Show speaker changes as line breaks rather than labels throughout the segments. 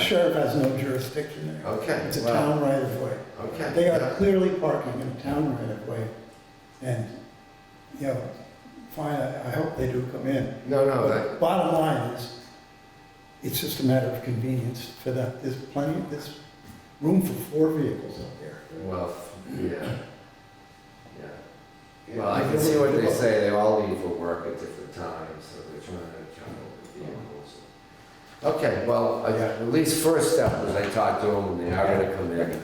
sheriff has no jurisdiction there.
Okay.
It's a
well,
town right of way.
Okay.
They are
Oh, yeah.
clearly parking in a town right of way. And, you know, fine, I I hope they do come in.
No, no, Oh, that,
But Bottom line is, it's just a matter of convenience for that. There's plenty, there's room for four vehicles up there.
well, yeah. Yeah. Well, I can see what they say, they all leave for work at different times, so they're trying to juggle the vehicles. Okay, well, I-
Hmm. Yeah.
at least first step was I talked to them, and they are gonna come in.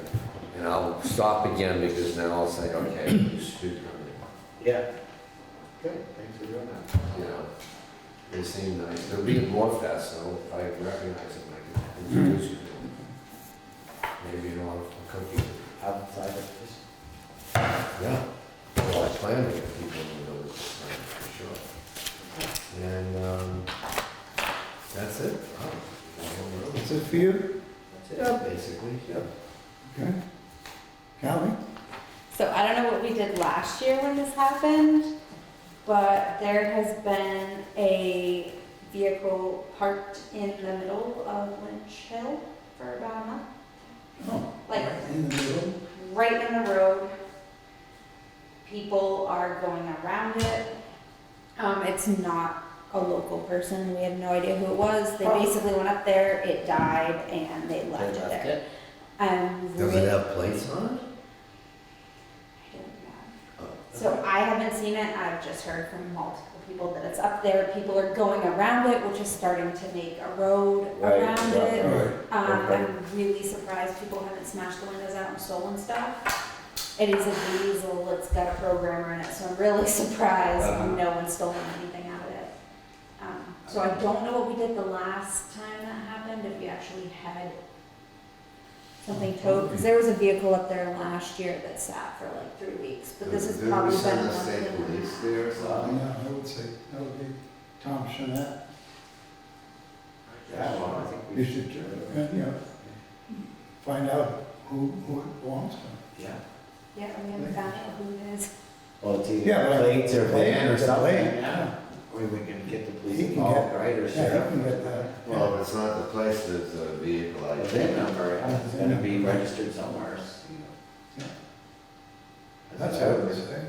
And I'll stop again because then I'll say, okay, you should come in.
Yeah. Good, thanks for doing that.
you know, they seem nice. They're being more fast, so if I recognize them, I can introduce you to them. Maybe you know, I'll come to you.
Outside of this.
Yeah. Well, I plan to get people in the village this time, for sure. And, um, that's it. Wow. That's all we're-
Is it for you?
That's it, basically, yeah.
Okay. Callie?
So I don't know what we did last year when this happened, but there has been a vehicle parked in the middle of Lynch Hill for about a month,
Oh,
like
in the middle?
right in the road. People are going around it. Um, it's not a local person. We had no idea who it was. They basically went up there, it died, and they left it there. I'm
Does
really-
it have plates on it?
I don't know.
Oh,
So I haven't seen it, I've just heard from multiple people that it's up there, people are going around it, which is starting to make a road
Right,
around
yeah.
All
it.
right.
Um,
Okay.
I'm really surprised people haven't smashed the windows out and stolen stuff. It is a diesel, it's got a programmer in it, so I'm really surprised
Uh-huh.
no one's stolen anything out of it. Um, so I don't know what we did the last time that happened, if we actually had something towed, because there was a vehicle up there last year that sat for like three weeks, but this
Did
has
did we
probably been
send the
one
state police
of them.
there or
Oh,
something?
no, I would say, that would be Tom Chanet.
Yeah, well, I think
You
we
should,
should.
uh, you know, find out who, who it belongs to.
Yeah.
Yeah, we haven't found out who it is.
Well, it's
Yeah,
either
but-
plates or van or
It's a
something,
plate,
yeah. Or we can get the police
He can
involved,
get-
right,
Yeah, you
or
can
sheriff.
get that.
Well, if it's not the place, there's a vehicle, I
The
think.
VIN number, it's gonna be registered somewhere. you know.
That's how eh? I would say.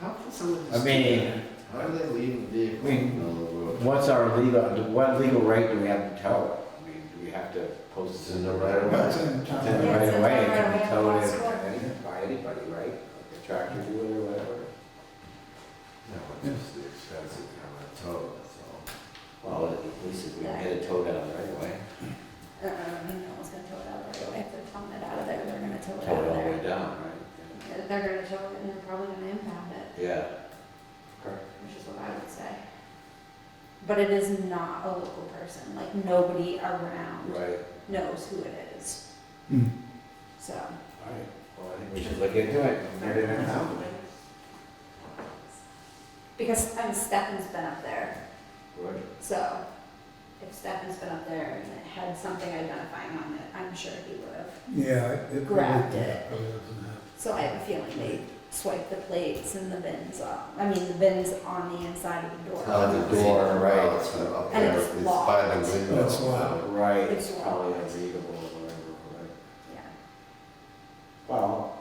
How can someone
I
just?
mean,
How do they leave a vehicle
I
in the
mean,
middle of the road?
what's our legal, what legal right do we have to tow it? I mean, do we have to post it in the right of
Well,
way?
it's in Tom.
It's in the
Yeah,
right
it's
of
in
way, it
the
can
right
be
of way,
towed
it's
in
what-
any- by anybody, right? Like a Tractor do it or whatever.
No, it's just the expense of having a tow, that's
Well, at least if we can get it towed out right away,
Uh, no one's gonna tow it out right away, if they're towing it out of there, they're gonna tow it
tow
out
it
of
all the way
there.
down, right?
They're gonna tow it and they're probably gonna impound it.
Yeah. Correct.
which is what I would say. But it is not a local person, like nobody around
Right,
knows who it is,
Hmm.
so.
all right, well, I think we should look into it. Maybe next time.
Because, I mean, Stefan's been up there,
Right.
so if Stefan's been up there and it had something identifying on it, I'm sure he would have.
Yeah. it- it
Grabbed
probably-
it.
probably doesn't have-
So I have a feeling they swiped the plates and the bins off, I mean, the bins on the inside of the door.
all. On Uh, the door, right, it's up
And
there,
it's
it's by
locked.
the window.
It's locked.
Right,
It's
it's probably
locked.
unreadable or whatever, right?
Yeah.
Well,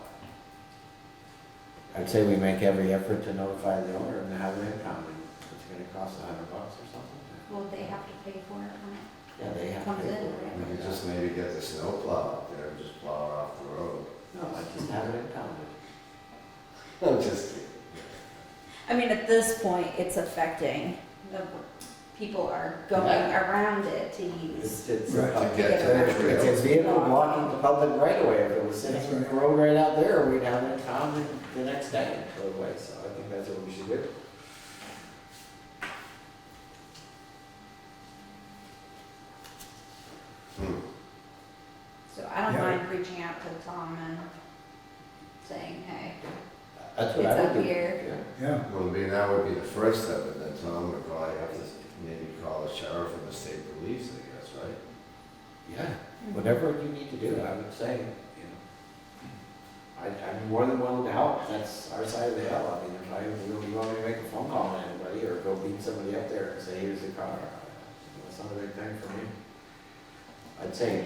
I'd say we make every effort to notify the owner and have them come, and it's gonna cost a hundred bucks or something.
Well, they have to pay for it,
Yeah, they have to
Comes
pay
in,
for
right?
it.
We could just maybe get the snow plow up there and just plow it off the road.
No, I just have it impounded.
No, just kidding.
I mean, at this point, it's affecting, the, people are going
Yeah.
around it to
It's,
use.
it's,
Right.
Oh,
To
a-
get to the
it's a
trails.
vehicle blocking the public right away, if it was sitting
That's
in the
right.
road right out there, we'd have it impounded the next day, right away, so I think that's what we should do.
Hmm.
So I don't
Yeah.
mind reaching out to Tom and saying, hey,
That's what
It's
I
up
would do.
here.
yeah.
Yeah,
Well, I mean, that would be the first step, and then Tom would probably have to maybe call the sheriff and the state police, I guess, right?
Yeah,
Mm-hmm.
whatever you need to do, I would say, you know. I, I'm more than willing to help, that's our side of the hill, I mean, if I, you want me to make a phone call to anybody, or go beat somebody up there and say, here's the car, it's not a big thing for me. I'd say,